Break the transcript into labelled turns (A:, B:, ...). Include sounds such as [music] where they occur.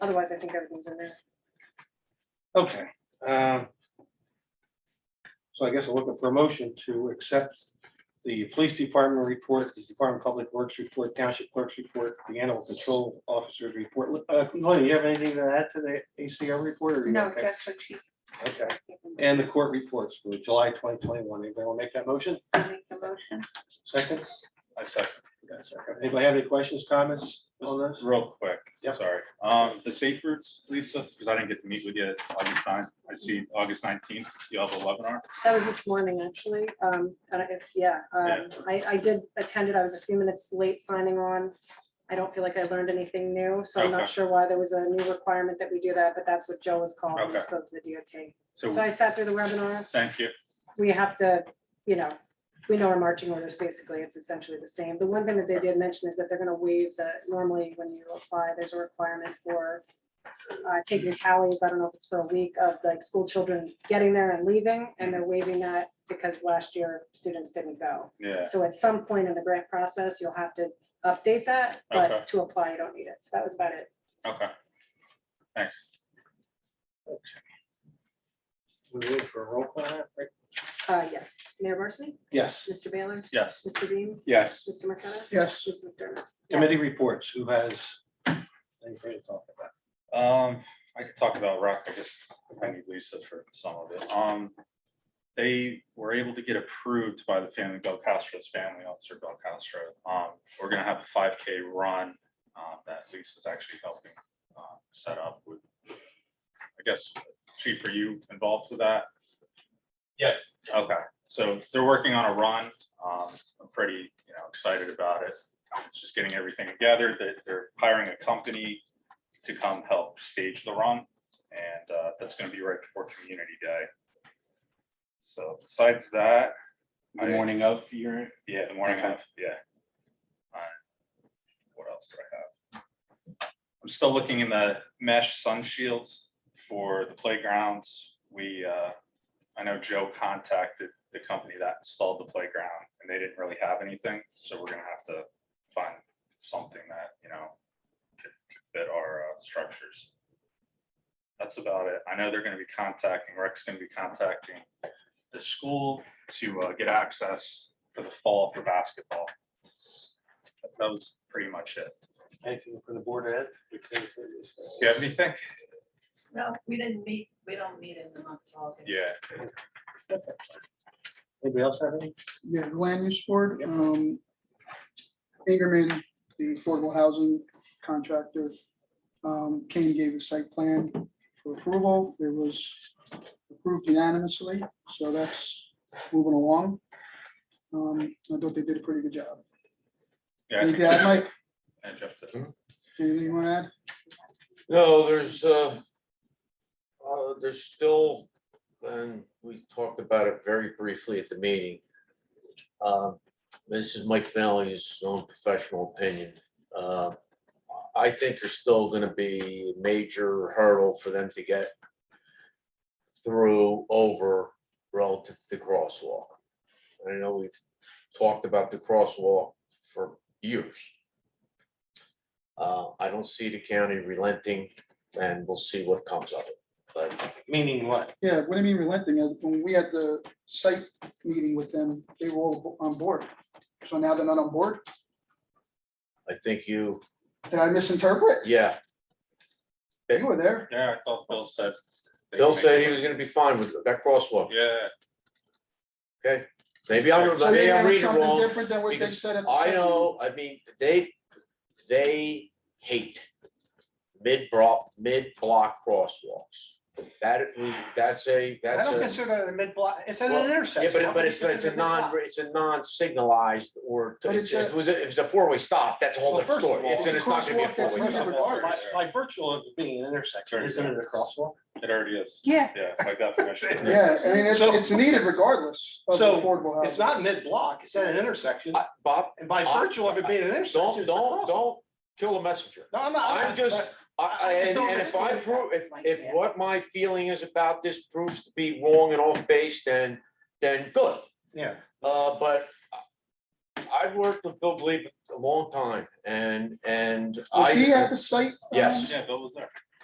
A: Otherwise, I think everything's in there.
B: Okay. um, So I guess I'm looking for a motion to accept the police department report, the Department of Public Works report, township clerk's report, the animal control officer's report. Uh, Lynn, you have anything to add to the ACO report? or you
A: No,
B: okay?
A: that's what she.
B: Okay, and the court reports for July twenty twenty-one. Anybody want to make that motion?
A: Make the motion.
B: Second?
C: I second.
B: Yes, second. Anybody have any questions, comments on this?
C: Real quick,
B: Yep.
C: sorry. Um, the safe routes, Lisa, because I didn't get to meet with you August 9th. I see August nineteenth, you have a webinar.
A: That was this morning, actually. Um, and if, yeah, um, I, I did attend it. I was a few minutes late signing on. I don't feel like I learned anything new, so I'm not
C: Okay.
A: sure why there was a new requirement that we do that, but that's what Joe was called. when
C: Okay.
A: He spoke to the DOT. So
C: So,
A: I sat through the webinar.
C: thank you.
A: we have to, you know, we know our marching orders, basically, it's essentially the same. The one thing that they did mention is that they're gonna waive the, normally when you apply, there's a requirement for uh, taking tallies, I don't know if it's for a week of like school children getting there and leaving, and they're waiving that because last year students didn't go.
C: Yeah,
A: So at some point in the grant process, you'll have to update that,
C: Okay.
A: but to apply, you don't need it. So that was about it.
C: okay. Thanks.
B: We're waiting for a roll call, right?
A: Uh, yeah, Mayor Barsney,
B: Yes.
A: Mr. Baylor,
C: Yes,
A: Mr. Beam,
C: yes.
A: Mr. McKenna,
B: Yes.
A: Ms. McDermott.
B: Committee
A: Yes.
B: reports, who has? anything to talk about?
C: Um, I could talk about rock, I guess, I need Lisa for some of it, um. They were able to get approved by the family, Bill Castro's family officer, Bill Castro, um, we're gonna have a five K run. Um, that Lisa's actually helping, uh, set up with. I guess, Chief, are you involved with that? Yes. Okay, so they're working on a run, um, I'm pretty, you know, excited about it. It's just getting everything together, that they're hiring a company to come help stage the run. And uh, that's gonna be right before Community Day. So besides that,
D: The morning of your,
C: yeah, the morning,
D: Okay.
C: of, yeah. Alright. What else did I have? I'm still looking in the mesh sun shields for the playgrounds. We, uh, I know Joe contacted the company that installed the playground and they didn't really have anything, so we're gonna have to find something that, you know, could could fit our uh, structures. That's about it. I know they're gonna be contacting, Rick's gonna be contacting the school to uh, get access for the fall for basketball. That was pretty much it.
B: Anything from the board ed?
C: Do you have anything?
E: No, we didn't meet, we don't meet in the month of August.
C: Yeah.
B: Anybody else have any?
F: Yeah, the land use board,
B: Yep.
F: um, Ingerman, the affordable housing contractor, um, came, and gave a site plan for approval. It was approved unanimously, so that's moving along. Um, I thought they did a pretty good job.
C: Yeah. I
F: Anything
C: think-
F: to add, Mike?
C: and Jeff did.
F: Anything you want to add?
G: No, there's, uh, uh, there's still, and we talked about it very briefly at the meeting. Um, This is Mike Finelli's own professional opinion. Uh, I think there's still gonna be a major hurdle for them to get through over relative to the crosswalk. I know we've talked about the crosswalk for years. Uh, I don't see the county relenting and we'll see what comes of it. But
B: Meaning what?
F: Yeah, what I mean relenting, is when we had the site meeting with them, they were all on board. So now they're not on board?
G: I think you,
F: Did I misinterpret?
G: yeah,
F: You were there.
C: Yeah, I thought Bill said.
G: Bill said he was gonna be fine with that crosswalk.
C: Yeah,
G: Maybe I'm,
F: So they
G: maybe I'm
F: had
G: reading it
F: something
G: wrong.
F: different than what they
G: because
F: said at the
G: I
F: site
G: know, I mean, they, they hate mid-block, mid-block crosswalks. That, that's a,
B: I
G: that's
B: don't
G: a.
B: consider that a mid-block, it's at
G: Well,
B: an intersection.
G: Yeah, but, it-
B: Why
G: but
B: would
G: it's,
B: you
G: it's a
B: consider it
G: non,
B: mid-block?
G: it's a non-signalized or,
F: But
G: if
F: it's a-
G: it was, a- if it's a four-way stop, that's a whole
B: Well,
G: different
B: first of
G: story.
B: all, it's
G: It's,
B: a
G: and it's not gonna be a
F: crosswalk that's
G: four-way
B: First
G: stop.
B: of all, By
C: Yeah.
B: by virtual of being an intersection,
C: Sure,
B: isn't it a crosswalk?
C: it already is.
A: Yeah.
C: Yeah, by definition.
F: [laughs] Yeah, I mean, it's,
B: So-
F: it's needed regardless of the
B: So,
F: affordable housing.
B: It's not mid-block, it's at an intersection,
G: I- Bob,
B: and by
G: I-
B: virtual of it being an intersection.
G: don't,
B: it's a
G: don't,
B: crosswalk.
G: don't kill a messenger.
B: No, I'm not.
G: I'm just, I, I,
B: I just
G: and
B: don't
G: and if I
B: understand
G: prove, if,
E: like
G: if
E: that.
G: what my feeling is about this proves to be wrong and off base, then, then good.
B: Yeah,
G: Uh, but I- I've worked with Bill Glebe a long time and, and I.
F: Was he at the site? um,
G: Yes.
C: Yeah, Bill was there.